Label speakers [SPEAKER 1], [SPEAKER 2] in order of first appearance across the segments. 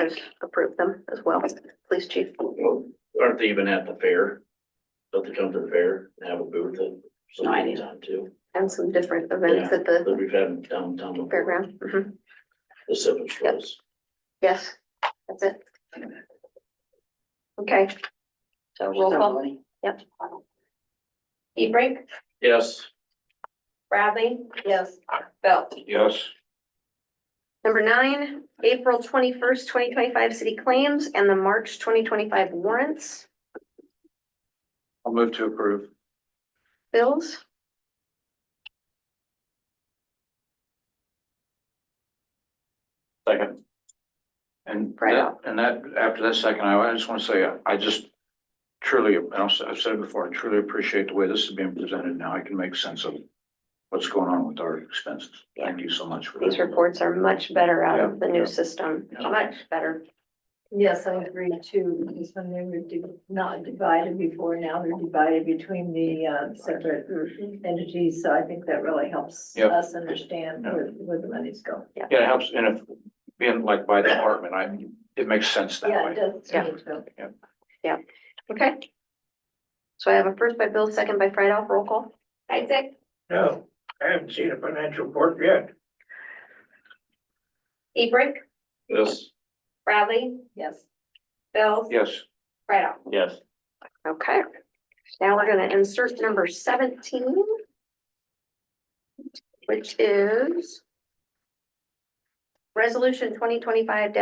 [SPEAKER 1] and approve them as well, police chief.
[SPEAKER 2] Aren't they even at the fair? Don't they come to the fair and have a booth at some
[SPEAKER 1] No idea.
[SPEAKER 2] time too?
[SPEAKER 1] And some different events at the
[SPEAKER 2] That we've had downtown before,
[SPEAKER 1] fairground. Mhm.
[SPEAKER 2] the seven shows.
[SPEAKER 1] Yes, that's it. Okay. So roll call, yep.
[SPEAKER 3] Hebrink,
[SPEAKER 2] Yes.
[SPEAKER 3] Bradley? Yes. Belt?
[SPEAKER 2] Yes.
[SPEAKER 1] Number nine, April twenty-first, twenty twenty-five city claims and the March twenty twenty-five warrants,
[SPEAKER 2] I'll move to approve.
[SPEAKER 1] bills.
[SPEAKER 4] Second. And
[SPEAKER 1] Right
[SPEAKER 4] that, and that, after that second, I I just want to say, I just truly, and I'll s- I've said it before, I truly appreciate the way this is being presented now. I can make sense of what's going on with our expenses. Thank you so much for
[SPEAKER 1] These
[SPEAKER 4] that.
[SPEAKER 1] reports are much better out of the new system, much better.
[SPEAKER 5] Yes, I agree too, because when they were di- not divided before, now they're divided between the uh, separate
[SPEAKER 1] Mm-hmm.
[SPEAKER 5] entities, so I think that really helps
[SPEAKER 4] Yep.
[SPEAKER 5] us understand where, where the money's going.
[SPEAKER 4] Yeah, it helps, and if, being like by department, I, it makes sense that
[SPEAKER 5] Yeah, it
[SPEAKER 4] way.
[SPEAKER 5] does to me too.
[SPEAKER 1] Okay. So I have a first by Bill, second by Friedel, roll call.
[SPEAKER 3] Isaac?
[SPEAKER 6] No, I haven't seen a financial report yet.
[SPEAKER 3] Hebrink,
[SPEAKER 2] Yes.
[SPEAKER 3] Bradley?
[SPEAKER 5] Yes.
[SPEAKER 3] Bills?
[SPEAKER 4] Yes.
[SPEAKER 3] Right off.
[SPEAKER 2] Yes.
[SPEAKER 1] Okay, now we're gonna insert number seventeen. Which is. Resolution twenty twenty-five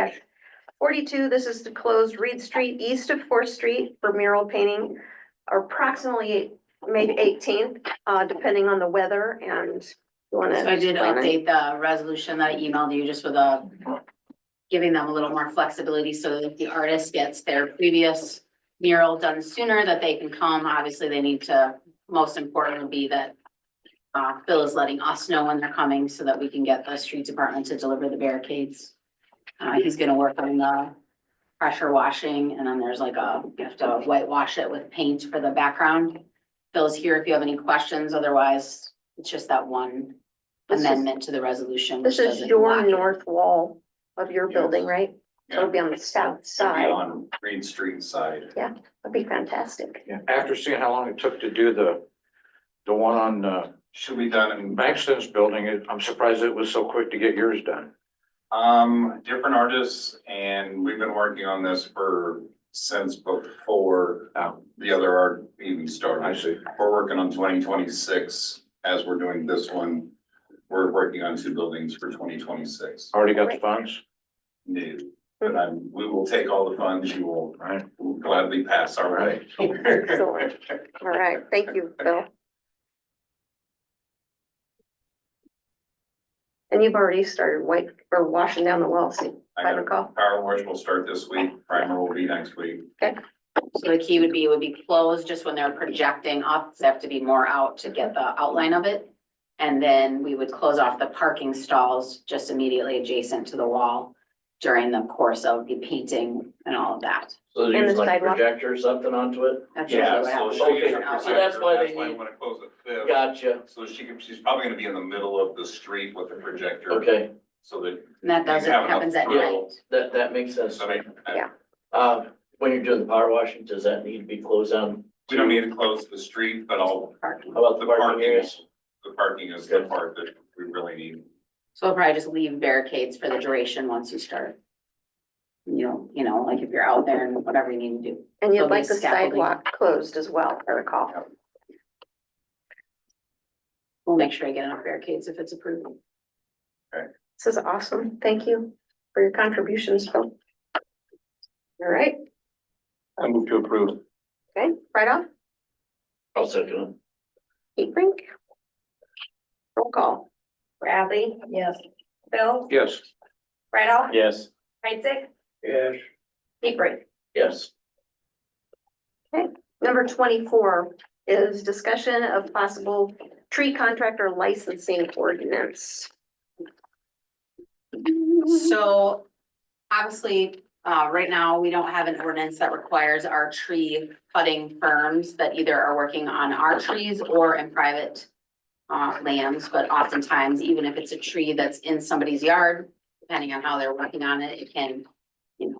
[SPEAKER 1] forty-two, this is to close Reed Street east of Fourth Street for mural painting. Approximately maybe eighteenth, uh, depending on the weather and. you wanna
[SPEAKER 7] So I did
[SPEAKER 1] explain it?
[SPEAKER 7] update the resolution that I emailed you just with a giving them a little more flexibility so that if the artist gets their previous mural done sooner, that they can come. Obviously, they need to, most important would be that uh, Phil is letting us know when they're coming so that we can get the street department to deliver the barricades. Uh, he's gonna work on the pressure washing and then there's like a, you have to whitewash it with paint for the background. Phil's here if you have any questions. Otherwise, it's just that one
[SPEAKER 1] This is-
[SPEAKER 7] amendment to the resolution.
[SPEAKER 1] This
[SPEAKER 7] which
[SPEAKER 1] is
[SPEAKER 7] doesn't
[SPEAKER 1] your
[SPEAKER 7] lock it.
[SPEAKER 1] north wall of your
[SPEAKER 4] Yes.
[SPEAKER 1] building, right? So it'll be on the south side,
[SPEAKER 6] on Green Street side.
[SPEAKER 1] that'd be fantastic.
[SPEAKER 4] Yeah, after seeing how long it took to do the, the one on, uh,
[SPEAKER 6] Should be done in,
[SPEAKER 4] Bankston's building, it- I'm surprised it was so quick to get yours done.
[SPEAKER 6] um, different artists and we've been working on this for, since before
[SPEAKER 4] Oh.
[SPEAKER 6] the other art even
[SPEAKER 4] I
[SPEAKER 6] started.
[SPEAKER 4] see.
[SPEAKER 6] We're working on twenty twenty-six as we're doing this one. We're working on two buildings for twenty twenty-six
[SPEAKER 4] Already got the funds?
[SPEAKER 6] new. But I'm, we will take all the funds you will
[SPEAKER 4] Right.
[SPEAKER 6] will gladly pass, all right?
[SPEAKER 1] Excellent. All right, thank you, Bill. And you've already started white, or washing down the walls, if
[SPEAKER 6] I
[SPEAKER 1] I
[SPEAKER 6] got a
[SPEAKER 1] recall.
[SPEAKER 6] power wash will start this week, primer will be next week.
[SPEAKER 7] So the key would be, would be closed just when they're projecting up, so they have to be more out to get the outline of it. And then we would close off the parking stalls just immediately adjacent to the wall during the course of the painting and all of that.
[SPEAKER 2] So they
[SPEAKER 1] And
[SPEAKER 2] use
[SPEAKER 1] the
[SPEAKER 2] like a
[SPEAKER 1] sidewalk.
[SPEAKER 2] projector or something onto it?
[SPEAKER 7] That's
[SPEAKER 6] Yeah,
[SPEAKER 7] usually what
[SPEAKER 6] so
[SPEAKER 7] happens.
[SPEAKER 6] she gets
[SPEAKER 2] Okay,
[SPEAKER 6] her
[SPEAKER 7] Out.
[SPEAKER 2] so that's
[SPEAKER 6] projector,
[SPEAKER 2] why
[SPEAKER 6] that's
[SPEAKER 2] they
[SPEAKER 6] why I
[SPEAKER 2] need-
[SPEAKER 6] wanna close it fifth.
[SPEAKER 2] Gotcha,
[SPEAKER 6] So she can, she's probably gonna be in the middle of the street with the projector.
[SPEAKER 2] okay,
[SPEAKER 6] So that,
[SPEAKER 7] And that doesn't,
[SPEAKER 6] You have enough
[SPEAKER 7] happens at
[SPEAKER 6] room.
[SPEAKER 7] night.
[SPEAKER 2] that, that makes sense.
[SPEAKER 6] I mean, I-
[SPEAKER 1] Yeah.
[SPEAKER 2] Uh, when you're doing the power washing, does that need to be closed down?
[SPEAKER 6] we don't need to close the street, but all
[SPEAKER 7] Parking.
[SPEAKER 2] How about
[SPEAKER 6] the
[SPEAKER 2] the parking
[SPEAKER 6] parking
[SPEAKER 2] areas?
[SPEAKER 6] is, the parking is the part that we really need.
[SPEAKER 7] So we'll probably just leave barricades for the duration once you start. You know, you know, like if you're out there and whatever you need to do.
[SPEAKER 1] And you'd
[SPEAKER 7] There'll be
[SPEAKER 1] like the
[SPEAKER 7] scaffolding.
[SPEAKER 1] sidewalk closed as well, if I recall.
[SPEAKER 7] We'll make sure I get enough barricades if it's approved.
[SPEAKER 1] This is awesome. Thank you for your contributions, Phil. All right,
[SPEAKER 4] I move to approve.
[SPEAKER 1] okay, right off,
[SPEAKER 2] I'll second
[SPEAKER 1] heat rink. Roll call,
[SPEAKER 3] Bradley?
[SPEAKER 5] Yes,
[SPEAKER 3] Bills?
[SPEAKER 4] Yes.
[SPEAKER 3] Right off.
[SPEAKER 2] it. Yes.
[SPEAKER 3] Isaac?
[SPEAKER 6] Yes.
[SPEAKER 3] Hebrink?
[SPEAKER 2] Yes.
[SPEAKER 1] number twenty-four is discussion of possible tree contractor licensing ordinance.
[SPEAKER 7] So obviously, uh, right now, we don't have an ordinance that requires our tree cutting firms that either are working on our trees or in private uh, lands, but oftentimes, even if it's a tree that's in somebody's yard, depending on how they're working on it, it can you know,